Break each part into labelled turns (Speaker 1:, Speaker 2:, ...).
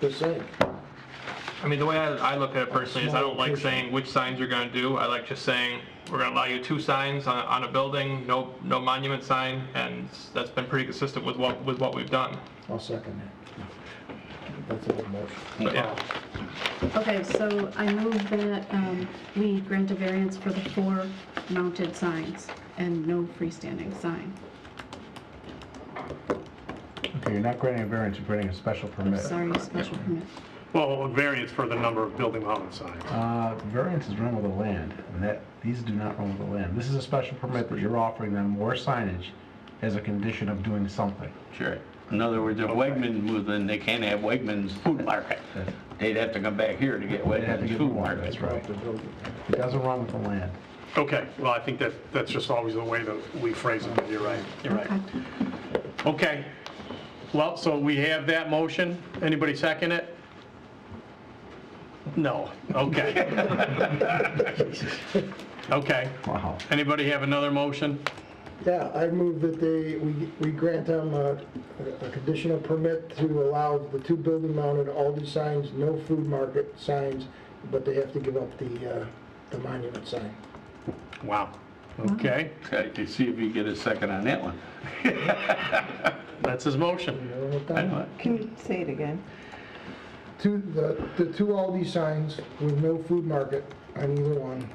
Speaker 1: Just saying.
Speaker 2: I mean, the way I, I look at it personally is I don't like saying which signs you're gonna do. I like just saying, we're gonna allow you two signs on, on a building, no, no monument sign, and that's been pretty consistent with what, with what we've done.
Speaker 1: I'll second that. That's a good motion.
Speaker 2: But yeah,
Speaker 3: Oh.
Speaker 4: Okay, so I move that um, we grant a variance for the four mounted signs and no freestanding sign.
Speaker 5: Okay, you're not granting a variance, you're granting a special
Speaker 4: I'm
Speaker 5: permit.
Speaker 4: sorry, special permit.
Speaker 6: Well, a variance for the number of building mounted signs.
Speaker 5: Uh, variance is run with the land, and that, these do not run with the land. This is a special permit that you're offering them more signage as a condition of doing something.
Speaker 3: Sure. In other words, if Wegmans moved in, they can't have Wegmans Food Market. They'd have to come back here to get
Speaker 5: They have to
Speaker 3: Wegmans
Speaker 5: give them
Speaker 3: Food
Speaker 5: one,
Speaker 3: Market.
Speaker 5: that's right. It doesn't run with the land.
Speaker 6: Okay, well, I think that, that's just always the way that we phrase it, but you're right, you're
Speaker 4: Okay.
Speaker 6: right. Okay, well, so we have that motion. Anybody second it? No, okay. Okay,
Speaker 5: Wow.
Speaker 6: anybody have another motion?
Speaker 1: Yeah, I move that they, we we grant them a a conditional permit to allow the two building mounted Aldi signs, no food market signs, but they have to give up the uh, the monument sign.
Speaker 6: Wow, okay,
Speaker 3: Okay, you see if you get a second on that one.
Speaker 6: that's his motion.
Speaker 1: You know what
Speaker 3: I
Speaker 1: I'm
Speaker 3: know
Speaker 1: talking
Speaker 3: it.
Speaker 7: Can you say it again?
Speaker 1: about? Two, the the two Aldi signs with no food market on either one,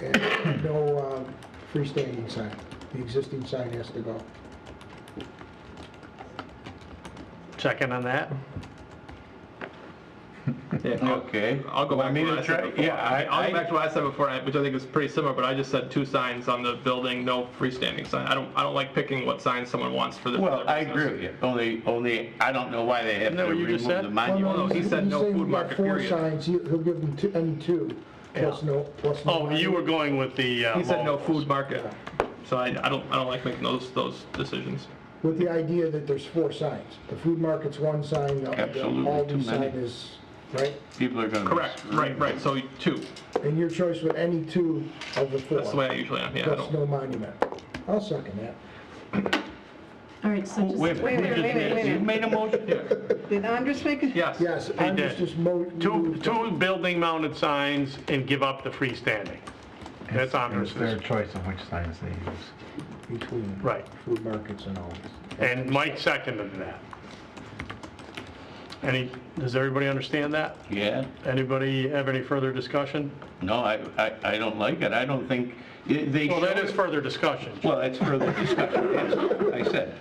Speaker 1: and no uh, freestanding sign. The existing sign has to go.
Speaker 6: Second on that?
Speaker 2: yeah.
Speaker 3: Okay.
Speaker 2: I'll go back
Speaker 3: me
Speaker 2: to what
Speaker 3: to
Speaker 2: I said
Speaker 3: try-
Speaker 2: before.
Speaker 3: yeah, I-
Speaker 2: I'll
Speaker 3: I-
Speaker 2: go back to what I said before, I- which I think is pretty similar, but I just said two signs on the building, no freestanding sign. I don't, I don't like picking what sign someone wants for their. for
Speaker 3: Well,
Speaker 2: their
Speaker 3: I
Speaker 2: business.
Speaker 3: agree with you. Only, only, I don't know why they have
Speaker 6: Isn't
Speaker 3: to
Speaker 6: that what you
Speaker 3: remove
Speaker 6: just
Speaker 3: the
Speaker 6: said?
Speaker 2: no,
Speaker 3: monument.
Speaker 2: he
Speaker 1: He's-
Speaker 2: said
Speaker 1: he's
Speaker 2: no
Speaker 1: saying
Speaker 2: food
Speaker 1: we've got
Speaker 2: market, period.
Speaker 1: Four signs, he- he'll give them two, any two, plus
Speaker 6: Yeah.
Speaker 1: no, plus no.
Speaker 6: Oh, you were going with the... uh,
Speaker 2: He said no
Speaker 6: motions.
Speaker 2: food market, so I, I don't, I don't like making those, those decisions.
Speaker 1: With the idea that there's four signs. The food market's one sign, the the
Speaker 3: Absolutely, too
Speaker 1: Aldi
Speaker 3: many.
Speaker 1: sign is, right?
Speaker 3: People are gonna. be
Speaker 2: Correct, right, right, so two,
Speaker 1: And your choice with any two of the four.
Speaker 2: that's the way I usually am, yeah, I
Speaker 1: Plus
Speaker 2: don't.
Speaker 1: no monument. I'll second that.
Speaker 4: All right, so
Speaker 3: Wait,
Speaker 4: just,
Speaker 3: wait, a minute,
Speaker 7: Wait,
Speaker 3: you just
Speaker 7: wait, wait,
Speaker 3: made-
Speaker 7: wait.
Speaker 3: you made a motion?
Speaker 7: Did Andres make a?
Speaker 2: Yes.
Speaker 1: Yes, I'm
Speaker 6: did.
Speaker 1: just just mo.
Speaker 6: Two, two building mounted signs and give up the freestanding. That's
Speaker 5: It's their
Speaker 6: Andres's,
Speaker 5: choice of which signs they use.
Speaker 1: Between.
Speaker 6: right.
Speaker 1: Food markets and Aldi's.
Speaker 6: And Mike seconded that. Any, does everybody understand that?
Speaker 3: Yeah.
Speaker 6: Anybody have any further discussion?
Speaker 3: No, I, I, I don't like it. I don't think, they.
Speaker 6: Well, that
Speaker 3: showed-
Speaker 6: is further discussion.
Speaker 3: Well, that's further discussion, yes, I said.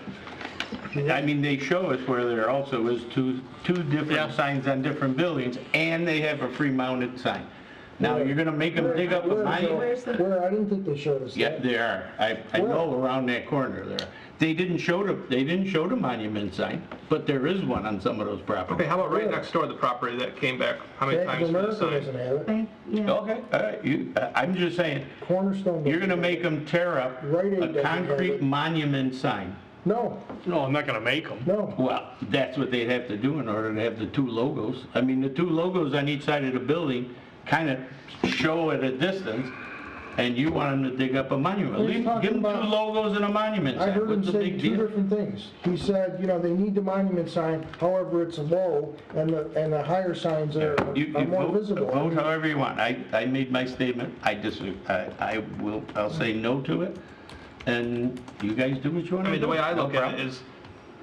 Speaker 3: I mean, they show us where there also is two, two
Speaker 6: Yeah.
Speaker 3: different signs on different buildings, and they have a free mounted sign. Now, you're gonna make them dig up a
Speaker 1: Where-
Speaker 3: monument?
Speaker 1: Where, I didn't think they showed us that.
Speaker 3: Yeah, they are. I, I know around that corner there. They didn't show the, they didn't show the monument sign, but there is one on some of those
Speaker 2: Okay,
Speaker 3: properties.
Speaker 2: how about right next door to the property that came back, how many
Speaker 1: Bank
Speaker 2: times
Speaker 1: of
Speaker 2: for the
Speaker 1: America doesn't
Speaker 2: sign?
Speaker 1: have it.
Speaker 4: okay, yeah,
Speaker 3: Okay, all right, you, I- I'm just saying,
Speaker 1: Cornerstone.
Speaker 3: you're
Speaker 1: doesn't
Speaker 3: gonna
Speaker 1: have
Speaker 3: make them tear up
Speaker 1: Rite Aid doesn't
Speaker 3: a
Speaker 1: have it.
Speaker 3: concrete monument sign.
Speaker 1: it. No,
Speaker 6: No, I'm not going to make them.
Speaker 1: no.
Speaker 3: Well, that's what they'd have to do in order to have the two logos. I mean, the two logos on each side of the building kind of show at a distance, and you want them to dig up a monument.
Speaker 1: He's
Speaker 3: Leave,
Speaker 1: talking
Speaker 3: give them two
Speaker 1: about-
Speaker 3: logos and a monument
Speaker 1: I
Speaker 3: sign.
Speaker 1: heard him
Speaker 3: What's the
Speaker 1: say
Speaker 3: big
Speaker 1: two
Speaker 3: deal?
Speaker 1: different things. He said, you know, they need the monument sign, however, it's low, and the, and the higher signs are,
Speaker 3: You- you
Speaker 1: are uh, more
Speaker 3: vote-
Speaker 1: visible.
Speaker 3: Vote however you want. I, I made my statement. I disagree, I, I will, I'll say no to it, and you guys do what you want
Speaker 2: I
Speaker 3: to
Speaker 2: mean,
Speaker 3: do.
Speaker 2: the way I
Speaker 3: No
Speaker 2: look at it
Speaker 3: problem.
Speaker 2: is,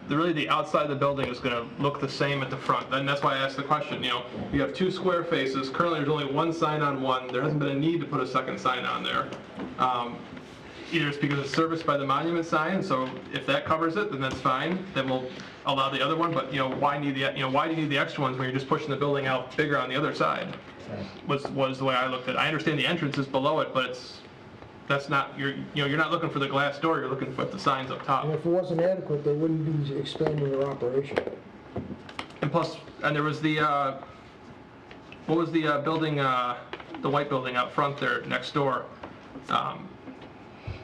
Speaker 2: the- really, the outside of the building is gonna look the same at the front, and that's why I asked the question, you know, you have two square faces, currently there's only one sign on one, there hasn't been a need to put a second sign on there. Um, Either it's because it's serviced by the monument sign, so if that covers it, then that's fine, then we'll allow the other one, but, you know, why need the, you know, why do you need the extra ones when you're just pushing the building out bigger on the other side? Was, was the way I looked at it. I understand the entrance is below it, but it's, that's not, you're, you know, you're not looking for the glass door, you're looking for the signs up top.
Speaker 1: And if it wasn't adequate, they wouldn't be expanding their operation.
Speaker 2: And plus, and there was the, uh, what was the, uh, building, uh, the white building out front there, next door, um,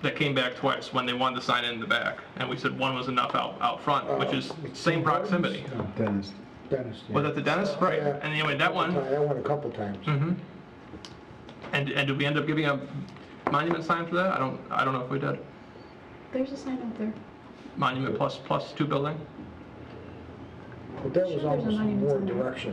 Speaker 2: that came back twice when they wanted to sign in the back, and we said one was enough out, out front, which is same proximity.
Speaker 5: Dennis,
Speaker 1: Dennis. yeah.
Speaker 2: Was that the dentist? Right,
Speaker 1: Yeah.
Speaker 2: and anyway, that one,
Speaker 1: That one a couple times.
Speaker 3: Hmm.
Speaker 2: and, and did we end up giving a monument sign for that? I don't, I don't know if we did.
Speaker 4: there's a sign out there.
Speaker 2: Monument plus, plus two building?
Speaker 1: But that was
Speaker 4: Sure, there's a
Speaker 1: almost
Speaker 4: monument
Speaker 1: more
Speaker 4: somewhere.
Speaker 1: direction.